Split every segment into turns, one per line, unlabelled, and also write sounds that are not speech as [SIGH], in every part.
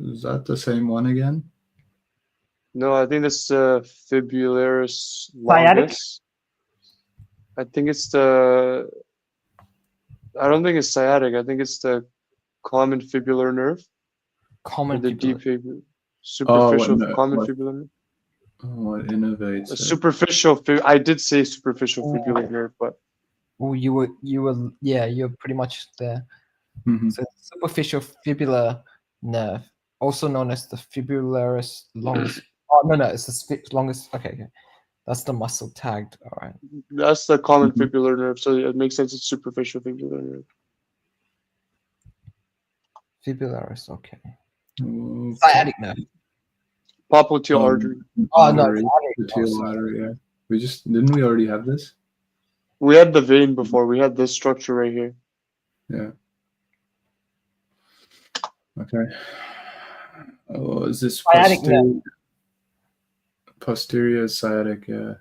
Is that the same one again?
No, I think that's the fibularis
Sciatic?
longus. I think it's the. I don't think it's sciatic. I think it's the common fibular nerve, or
Common
the
people.
deep fib- superficial
no,
common
Oh, what-
fibular. nerve.
Oh, it innovates.
A
it.
superficial. Fib- I did say superficial
Oh.
fibular nerve, but
Oh, you were, you were, yeah, you're pretty much there.
Hmm.
Mhm.
So superficial fibular nerve, also known as the fibularis
[CLEARS THROAT]
longus. oh no, no, it's the sp- longest. Okay, okay, that's the muscle tagged. All right.
that's the common
Mhm.
fibular nerve, so it makes sense. It's superficial fibular nerve.
Fibularis, okay.
Okay.
Sciatic nerve.
Popliteal
Um,
artery.
Oh no,
artery,
it's
the
artery.
teal
Oh, sorry.
artery, yeah. We just didn't we already have this?
We had the vein before. We had this structure right here.
Yeah. Okay. Oh, is this
Sciatic nerve.
posteri- posterior sciatic? Yeah.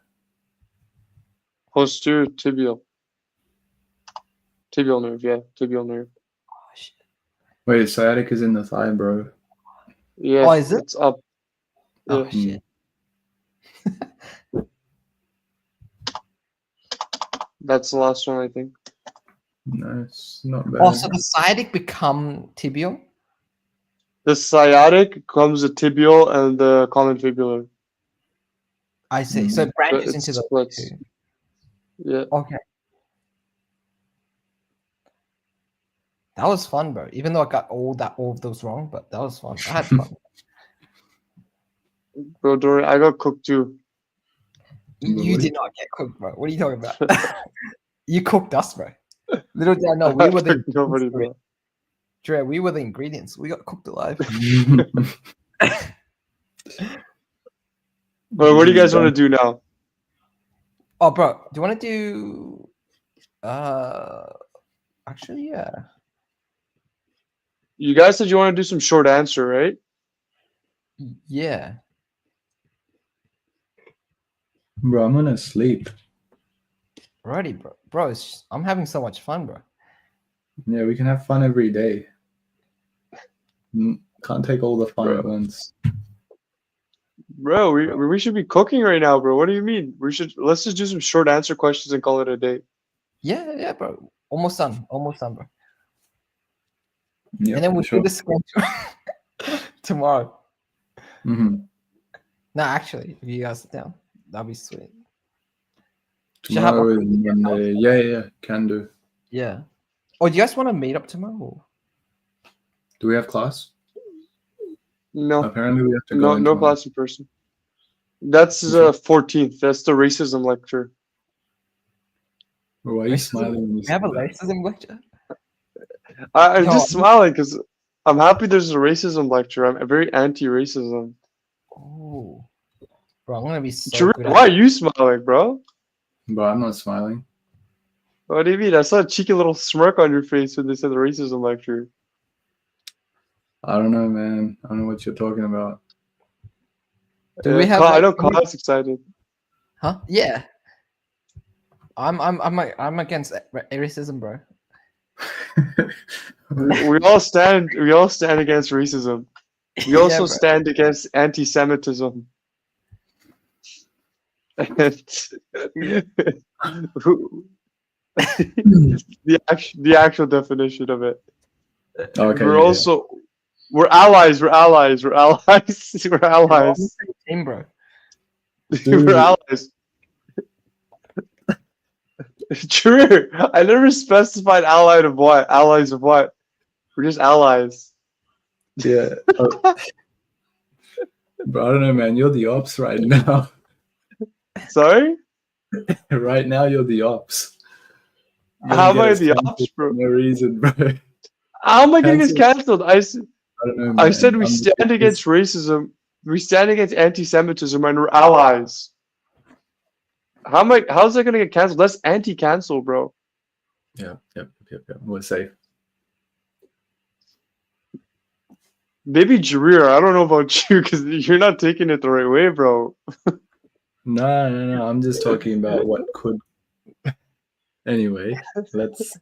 Posterior tibial. Tibial nerve, yeah, tibial nerve.
Oh, shit.
Wait, sciatic is in the thigh, bro.
Yeah,
Oh, is it?
it's up.
Oh,
Yeah. Mm,
shit.
That's the last one, I think.
No, it's not bad.
Oh, so the sciatic become tibial.
The sciatic comes the tibial and the common fibular.
I see. So it
Mm, But
branches
it
into the
splits.
two.
Yeah,
Okay. That was fun, bro. Even though I got all that all of those wrong, but that was fun. I had fun.
bro, Dory, I got cooked too.
You, you
Really?
did not get cooked, bro. What are you
[LAUGHS]
talking about? you cooked us, bro. Little did I
[LAUGHS]
know, we
I
[LAUGHS]
were the
cooked nobody,
ingredients,
bro.
Dre. Dre, We were the ingredients. We got cooked alive.
But what do you guys want to do now?
Oh, bro, do you want to do? Uh, actually, yeah.
You guys said you want to do some short answer, right?
Y- Yeah.
[LAUGHS] Bro, I'm gonna sleep.
Righty, bro. Bro, it's, I'm having so much fun, bro.
Yeah, we can have fun every day. Mm, Can't take all the fun at once.
Bro, we, we should be cooking right now, bro. What do you mean? We should let's just do some short answer questions and call it a day.
Yeah, yeah, bro. Almost done. Almost done, bro.
Yeah,
and then we'll
sure.
do the schedule [LAUGHS] tomorrow.
Mhm.
No, actually, if you guys sit down, that'd be sweet. Should have
Tomorrow
a-
is Monday. Yeah, yeah, yeah, can do.
Yeah. Oh, do you guys want to meet up tomorrow?
Do we have class?
No.
Apparently, we have to go.
No,
in
no
tomorrow.
class in person. That's the fourteenth. That's the racism lecture.
Why are you
Racism.
smiling? when you
We have
say that?
a racism lecture.
I, I'm
No.
just smiling because I'm happy there's a racism lecture. I'm very anti-racism.
Oh, bro, I'm gonna be so
Jareem,
good. at-
why are you smiling, bro?
Bro, I'm not smiling.
What do you mean? I saw a cheeky little smirk on your face when they said the racism lecture.
I don't know, man. I don't know what you're talking about.
[LAUGHS]
Do
Uh,
we have,
Ka- I
like,
know
any-
Khan's excited.
Huh? Yeah. I'm I'm I'm a- I'm against a- ra- racism, bro.
We all stand. We all stand against racism.
[LAUGHS]
We also
bro.
stand against
[LAUGHS]
anti-Semitism. [LAUGHS] Who- the actual, the actual definition of it.
okay.
we're
yeah,
also we're allies. We're allies. We're allies. [LAUGHS] We're
We're all on
allies.
the same Team, bro.
Dude.
[LAUGHS] we're allies. True. I never specified allied of what. Allies of what. We're just allies.
yeah.
[LAUGHS]
Yeah. Oh. Bro, I don't know, man. You're the ops right [LAUGHS] now.
Sorry.
right now, you're the ops. You're gonna
How am
get
I
us
the
cancelled
ops,
for
bro?
No reason, bro. [LAUGHS] I
How am I getting this canceled? I, s-
don't know.
I
man.
said we
I'm-
stand against racism. We stand against anti-Semitism, and we're allies. How am I? How's that gonna get canceled? That's anti-cancel, bro.
Yeah, yep, yep, yep. We're safe.
Maybe Jareer. I don't know about [LAUGHS] you because you're not taking it the right way, bro.
No, no, no. I'm just talking about what could. Anyway, let's